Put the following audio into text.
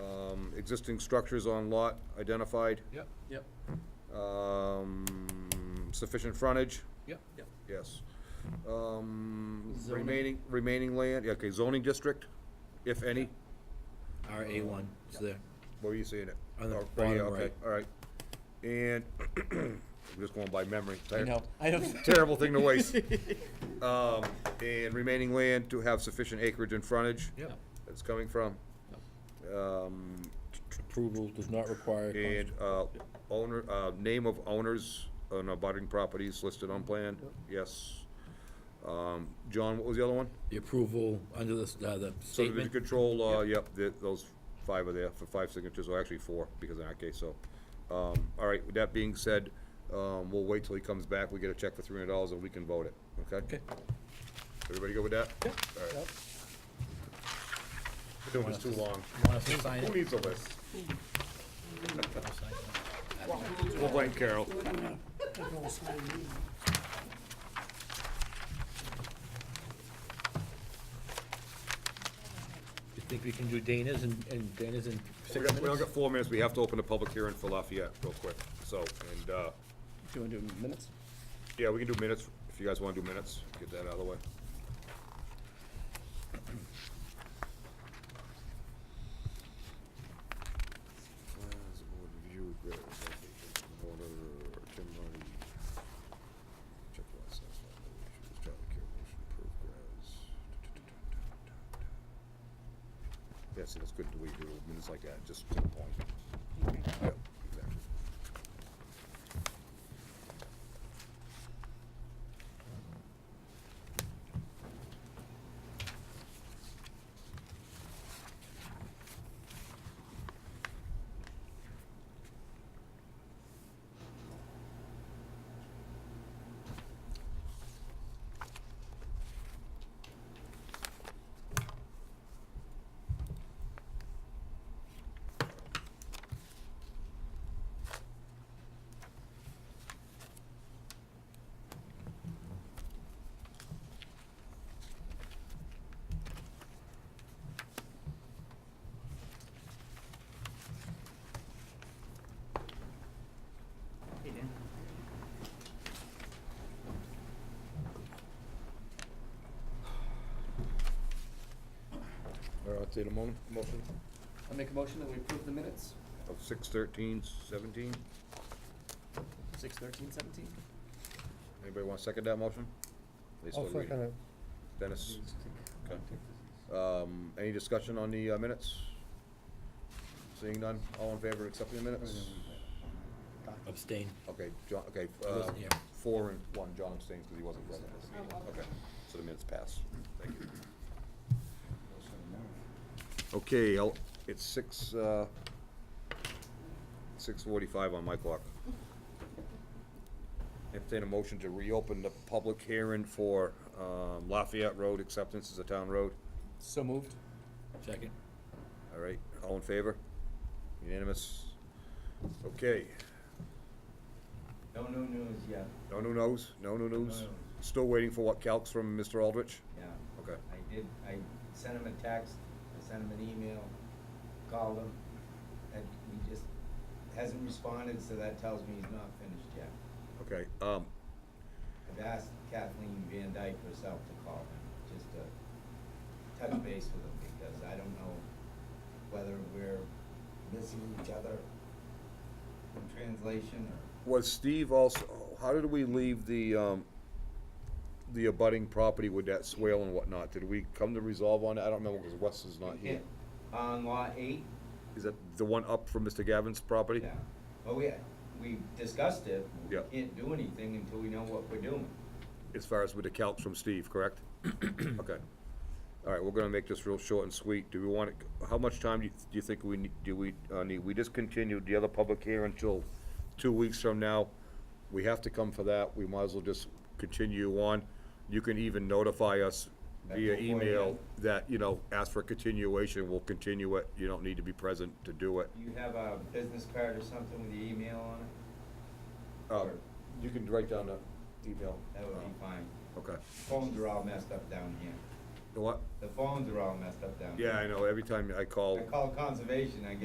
Um, existing structures on lot identified, Yep, Yep, um, sufficient frontage, yep. yep. yes. Um, Zoning. remaining, remaining land, yeah, okay, zoning district, if any, R A one is there. where are you seeing it? On the Oh, right here, bottom okay, right. All right, and, I'm just going by memory. I know, I have. Terrible thing to waste. Um, and remaining land to have sufficient acreage and frontage. Yep. That's coming from. Um, Approval does not require. and, uh, owner, uh, name of owners on abutting properties listed on plan, yes. Um, John, what was the other one? The approval under this, uh, the Subdivision statement. control, uh, yep, th- those five are there for five signatures, or actually four, because in our case, so. Um, all right, with that being said, um, we'll wait till he comes back, we get a check for three hundred dollars and we can vote it, okay? Okay. Everybody go with that? Yep. All right. It was too long. Want us to sign Who it? needs a list? We'll blame Carol. You think we can do Dana's and, and Dana's in We six got, we only minutes? got four minutes, we have to open a public hearing for Lafayette real quick, so, and, uh, Do you want to do minutes? yeah, we can do minutes, if you guys wanna do minutes, get that out of the way. Yeah, see, that's good, that we do minutes like that, just to the point. Yep, exactly. All right, I'll take a moment, motion I make a motion that we approve the minutes, of six thirteen seventeen. six thirteen seventeen. Anybody wanna second that motion? They still I'll read second it. Dennis? Okay. Um, any discussion on the uh, minutes? Seeing none, all in favor of accepting the minutes? Abstain. Okay, John, okay, I uh, wasn't here. Oh, four and one, John abstains because he wasn't present at the meeting. Okay, so the minutes pass. Thank you. Okay, I'll, it's six, uh, six forty-five on my clock. Entertain a motion to reopen the public hearing for, um, Lafayette Road acceptance as a town road. So moved. Second. All right, all in favor? Unanimous? Okay, No new news yet, no new knows, no new news. No news. Still waiting for what calcs from Mr. Aldrich? yeah. Okay. I did, I sent him a text, I sent him an email, called him, and he just hasn't responded, so that tells me he's not finished yet. Okay, um, I've asked Kathleen Van Dyke herself to call him, just to touch base with him, because I don't know whether we're missing each other in translation or. was Steve also, how did we leave the, um, the abutting property with that swale and whatnot? Did we come to resolve on that? I don't remember because Wes is not here. On law eight, Is that the one up from Mr. Gavin's property? Oh, Yeah, well, we, we discussed it. We Yeah. Can't do anything until we know what we're doing. As far as with the calcs from Steve, correct? Okay. All right, we're gonna make this real short and sweet. Do we want, it- how much time do you, do you think we, need- do we, uh, need? We just continued the other public hearing until two weeks from now. We have to come for that. We might as well just continue on. You can even notify us That via before then. email that, you know, ask for continuation, we'll continue it. You don't need to be present to do it. You have a business card or something with the email on it? Um, you can write down the email. That would Oh. be fine. Okay. Phones are all messed up down here. You know What? The phones are all messed up down here. Yeah, I know. Every time I call. I called conservation, I get